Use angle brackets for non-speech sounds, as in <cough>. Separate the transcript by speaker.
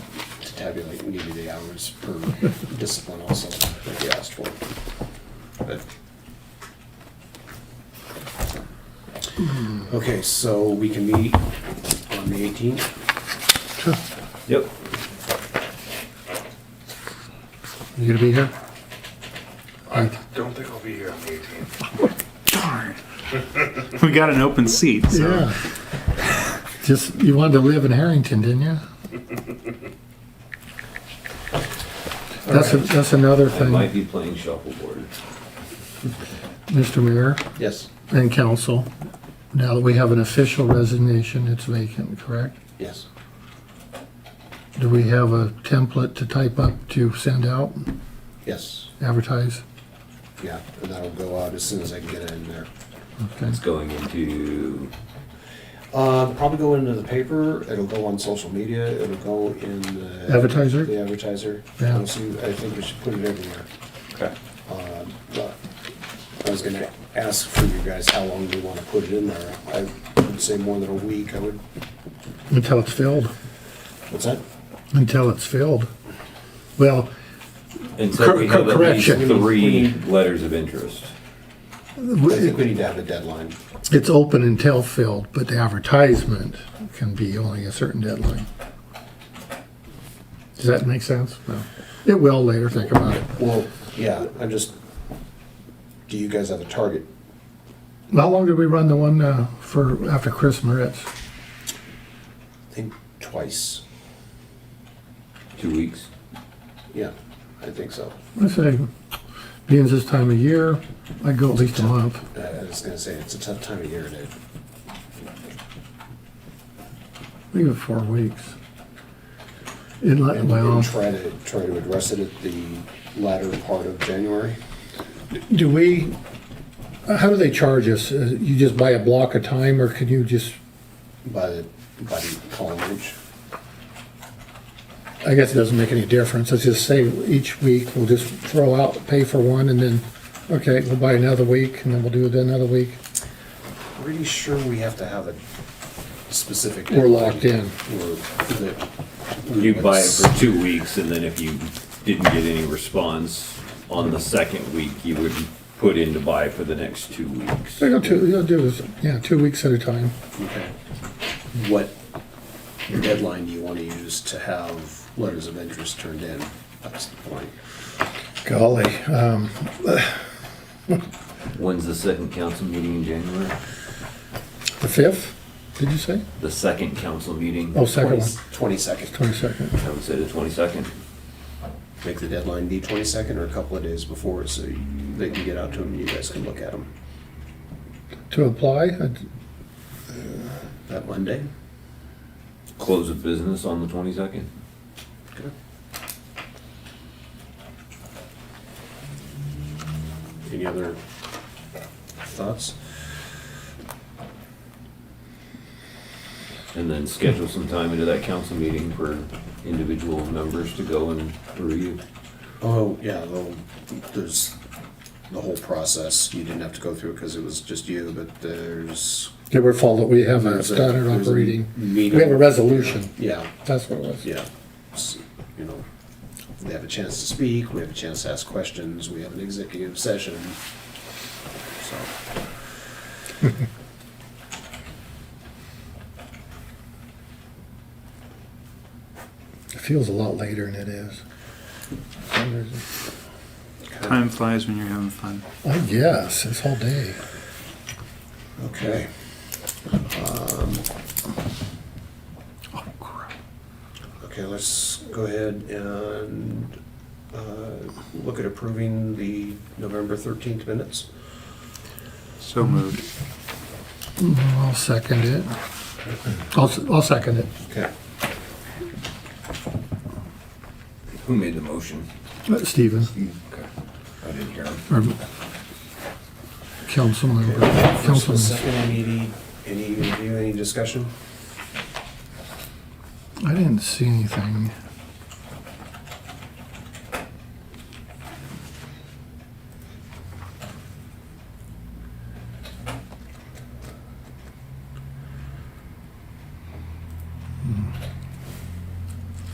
Speaker 1: tabulate and give you the hours per
Speaker 2: <laughs>
Speaker 1: discipline also that you asked for. But- Okay, so we can meet on the eighteenth.
Speaker 3: Yep.
Speaker 2: You gonna be here?
Speaker 4: I don't think I'll be here on the eighteenth.
Speaker 2: Darn.
Speaker 3: <laughs> We got an open seat, so.
Speaker 2: Yeah. <laughs> Just, you wanted to live in Harrington, didn't <laughs> you? That's, a- that's another
Speaker 5: I might
Speaker 2: thing,
Speaker 5: be playing shuffleboard.
Speaker 2: Mr. Mayor
Speaker 1: Yes.
Speaker 2: and council. Now that we have an official resignation, it's vacant, correct?
Speaker 1: Yes.
Speaker 2: Do we have a template to type up to send out,
Speaker 1: Yes.
Speaker 2: advertise?
Speaker 1: Yeah, and that'll go out as soon as I can get it in there.
Speaker 2: Okay.
Speaker 5: It's going into,
Speaker 1: Uh, probably go into the paper, it'll go on social media, it'll go in the.
Speaker 2: Advertiser?
Speaker 1: The advertiser.
Speaker 2: Yeah.
Speaker 1: You'll see- I think we should put it everywhere.
Speaker 5: okay,
Speaker 1: Um, but I was gonna ask for you guys how long you wanna put it in there. I would say more than a week, I would,
Speaker 2: Until it's filled,
Speaker 1: what's that?
Speaker 2: until it's filled. Well,
Speaker 5: and so we have at least
Speaker 2: Correction.
Speaker 5: three letters of interest.
Speaker 1: I think we need to have a deadline.
Speaker 2: it's open until filled, but the advertisement can be only a certain deadline. Does that make sense? No. It will later, think about it.
Speaker 1: Well, yeah, I'm just, do you guys have a target?
Speaker 2: How long did we run the one uh, for, after Chris Moritz?
Speaker 1: I think twice.
Speaker 5: Two weeks.
Speaker 1: Yeah, I think so.
Speaker 2: I say, being this time of year, I'd go at least a month.
Speaker 1: I I was gonna say, it's a tough time of year to
Speaker 2: Maybe four weeks. It let,
Speaker 1: And we can
Speaker 2: well,
Speaker 1: try to, try to address it at the latter part of January.
Speaker 2: do we, how do they charge us? Uh, You just buy a block of time or can you just,
Speaker 1: by the, by the column H.
Speaker 2: I guess it doesn't make any difference. Let's just say each week we'll just throw out, pay for one and then, okay, we'll buy another week and then we'll do it another week.
Speaker 1: Pretty sure we have to have a specific.
Speaker 2: We're locked in.
Speaker 1: Or the.
Speaker 5: You buy it for two weeks, and then if you didn't get any response on the second week, you would put in to buy for the next two weeks.
Speaker 2: So you'll do, you'll do this, yeah, two weeks at a time.
Speaker 1: Okay. What deadline do you want to use to have letters of interest turned in? That's the point.
Speaker 2: Golly, uh,
Speaker 5: When's the second council meeting in January?
Speaker 2: the fifth, did you say?
Speaker 5: The second council meeting?
Speaker 2: Oh, second one,
Speaker 1: Twenty-second.
Speaker 2: twenty-second.
Speaker 5: I would say the twenty-second.
Speaker 1: Make the deadline be twenty-second or a couple of days before, so you- they can get out to them, and you guys can look at them.
Speaker 2: To apply, I'd-
Speaker 1: That Monday?
Speaker 5: Close of business on the twenty-second?
Speaker 1: Okay. Any other thoughts?
Speaker 5: And then schedule some time into that council meeting for individual members to go and review.
Speaker 1: Oh, yeah, well, there's the whole process. You didn't have to go through it because it was just you, but there's.
Speaker 2: They were followed, we have a
Speaker 1: there's a-
Speaker 2: standard
Speaker 1: there's a
Speaker 2: operating, we
Speaker 1: meeting.
Speaker 2: have a resolution,
Speaker 1: Yeah,
Speaker 2: that's what it was.
Speaker 1: yeah. S- You know, they have a chance to speak, we have a chance to ask questions, we have an executive session. So,
Speaker 2: It feels a lot later than it is.
Speaker 3: Time flies when you're having fun.
Speaker 2: I guess, this whole day.
Speaker 1: okay. Um,
Speaker 3: Oh, crap.
Speaker 1: Okay, let's go ahead and uh, look at approving the November 13th minutes.
Speaker 3: So moved.
Speaker 2: I'll second it. I'll, s- I'll second it.
Speaker 1: Okay.
Speaker 5: Who made the motion?
Speaker 2: Uh, Stephen,
Speaker 5: Okay. I didn't hear him.
Speaker 2: or Councilman, Councilman,
Speaker 1: Second, any, any review, any discussion?
Speaker 2: I didn't see anything.